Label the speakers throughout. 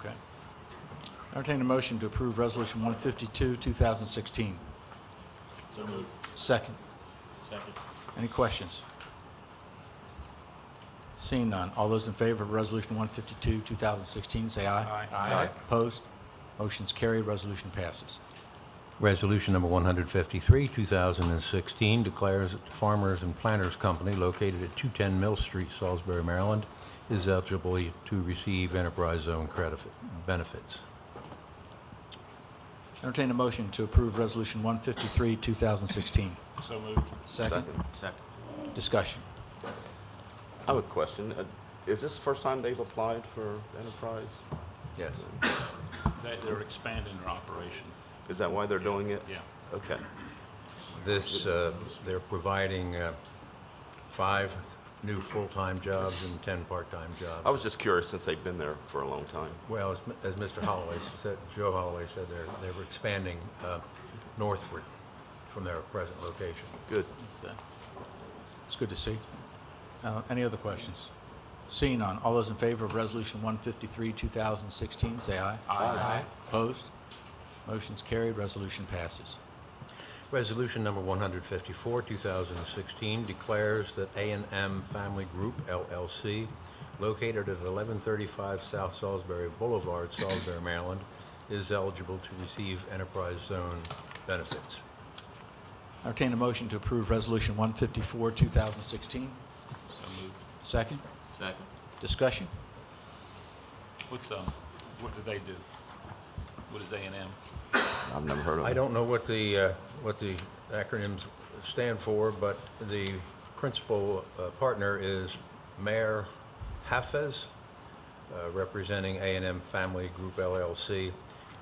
Speaker 1: Okay. Entertain a motion to approve Resolution 152, 2016.
Speaker 2: So moved.
Speaker 1: Second.
Speaker 2: Second.
Speaker 1: Any questions? Seeing none, all those in favor of Resolution 152, 2016, say aye.
Speaker 2: Aye. Aye.
Speaker 1: Opposed? Motion's carried, resolution passes.
Speaker 3: Resolution number 153, 2016, declares that the Farmers and Planters Company located at 210 Mill Street, Salisbury, Maryland, is eligible to receive enterprise zone credit benefits.
Speaker 1: Entertain a motion to approve Resolution 153, 2016.
Speaker 2: So moved.
Speaker 1: Second.
Speaker 2: Second.
Speaker 1: Discussion.
Speaker 4: I have a question. Uh, Is this the first time they've applied for enterprise?
Speaker 3: Yes.
Speaker 2: They, they're expanding their operation.
Speaker 4: Is that why they're doing it?
Speaker 2: Yeah.
Speaker 4: Okay.
Speaker 3: This, uh, they're providing uh, five new full-time jobs and 10 part-time
Speaker 4: I
Speaker 3: jobs.
Speaker 4: was just curious since they've been there for a long time.
Speaker 3: Well, as as Mr. Holloway said, Joe Holloway said, they're they were expanding uh, northward from their present location.
Speaker 4: Good.
Speaker 1: It's good to see. Uh, Any other questions? Seeing none, all those in favor of Resolution 153, 2016, say aye. Aye. Opposed? Motion's carried, resolution passes.
Speaker 3: Resolution number 154, 2016, declares that a and M Family Group LLC, located at 1135 South Salisbury Boulevard, Salisbury, Maryland, is eligible to receive enterprise zone benefits.
Speaker 1: Entertain a motion to approve Resolution 154, 2016.
Speaker 2: So moved.
Speaker 1: Second.
Speaker 2: Second.
Speaker 1: Discussion.
Speaker 2: What's, um, what do they do? What is A and M?
Speaker 4: I've never heard of it.
Speaker 3: I don't know what the, uh, what the acronyms stand for, but the principal uh, partner is Mayor Hafez, uh, representing a and m Family Group LLC,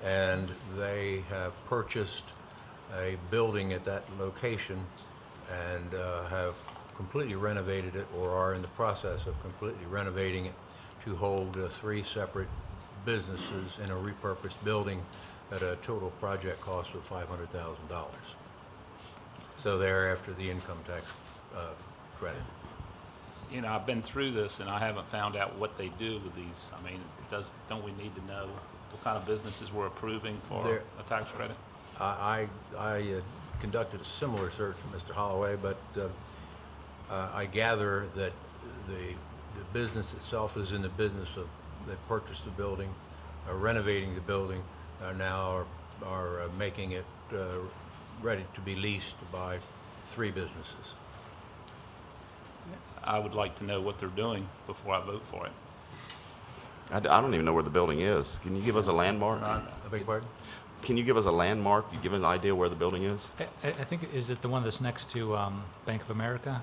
Speaker 3: and they have purchased a building at that location and uh, have completely renovated it, or are in the process of completely renovating it to hold uh, three separate businesses in a repurposed building at a total project cost of $500,000. So they're after the income tax uh, credit.
Speaker 2: You know, I've been through this and I haven't found out what they do with these. I mean, does, don't we need to know what kind of businesses we're approving for
Speaker 3: They're-
Speaker 2: a tax credit?
Speaker 3: I, I I, uh, conducted a similar search for Mr. Holloway, but uh, uh, I gather that the, the business itself is in the business of, they purchased the building, are renovating the building, are now are, are uh, making it uh, ready to be leased by three businesses.
Speaker 2: I would like to know what they're doing before I vote for it.
Speaker 4: I d- I don't even know where the building is. Can you give us a landmark?
Speaker 3: I beg your pardon?
Speaker 4: Can you give us a landmark? You give an idea where the building is?
Speaker 5: I, I I think, is it the one that's next to um, Bank of America,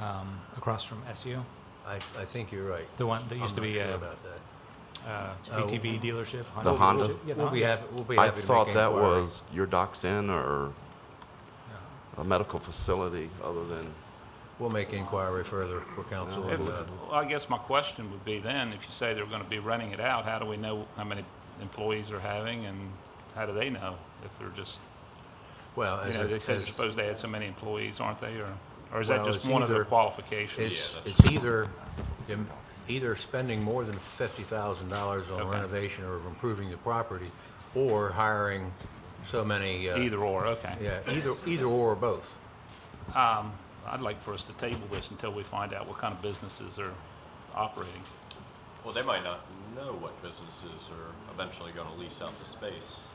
Speaker 5: um, across from SU?
Speaker 3: I, I think you're right.
Speaker 5: The one that used to be uh,
Speaker 3: I'm
Speaker 5: a
Speaker 3: not sure about that.
Speaker 5: ATV dealership?
Speaker 4: The Honda?
Speaker 5: Yeah,
Speaker 3: We'll be
Speaker 5: Honda.
Speaker 3: happy, we'll be
Speaker 4: I
Speaker 3: happy to make
Speaker 4: thought that
Speaker 3: inquiry.
Speaker 4: was your doc's inn or a medical facility other than,
Speaker 3: We'll make inquiry further for council.
Speaker 2: If-
Speaker 3: uh,
Speaker 2: Well, I guess my question would be then, if you say they're going to be renting it out, how do we know how many employees they're having and how do they know if they're just,
Speaker 3: Well,
Speaker 2: you
Speaker 3: as,
Speaker 2: know, they
Speaker 3: it-
Speaker 2: said they're
Speaker 3: as,
Speaker 2: supposed to add so many employees, aren't they, or, or is that
Speaker 3: Well,
Speaker 2: just
Speaker 3: it's
Speaker 2: one of their
Speaker 3: either-
Speaker 2: qualifications?
Speaker 3: It's, it's either, em- either spending more than fifty thousand dollars on
Speaker 2: Okay.
Speaker 3: renovation or improving the property, or hiring so many. uh,
Speaker 2: Either or, okay.
Speaker 3: Yeah, either, either or both.
Speaker 2: I'd like for us to table this until we find out what kind of businesses are operating.
Speaker 6: Well, they might not know what businesses are eventually going to lease out the space.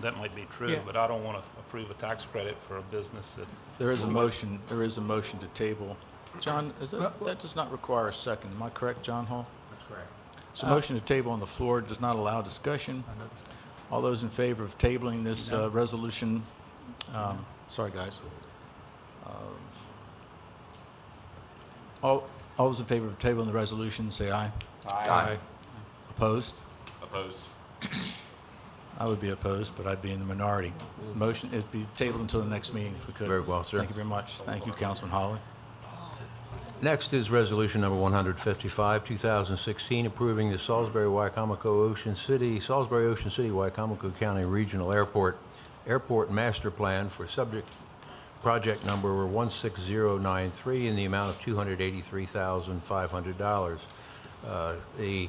Speaker 2: That might be true,
Speaker 5: Yeah.
Speaker 2: but I don't want to approve a tax credit for a business that,
Speaker 1: There is a motion, there is a motion to table. John, is that, that does not require a second, am I correct, John Hall? Correct. It's a motion to table on the floor, It does not allow discussion. All those in favor of tabling this uh, resolution, um, sorry, guys. Um, All, all those in favor of tabling the resolution, say aye.
Speaker 5: Aye.
Speaker 1: Opposed?
Speaker 6: Opposed?
Speaker 1: I would be opposed, but I'd be in the minority. Motion, it'd be tabled until the next meeting if we could.
Speaker 3: Very well, sir.
Speaker 1: Thank you very much. Thank you, Councilman Holly.
Speaker 3: Next is Resolution Number 155, 2016, approving the Salisbury-Wycomico Ocean City, Salisbury Ocean City, Wycomico County Regional Airport, Airport Master Plan for subject project number 16093 in the amount of $283,500. Uh, The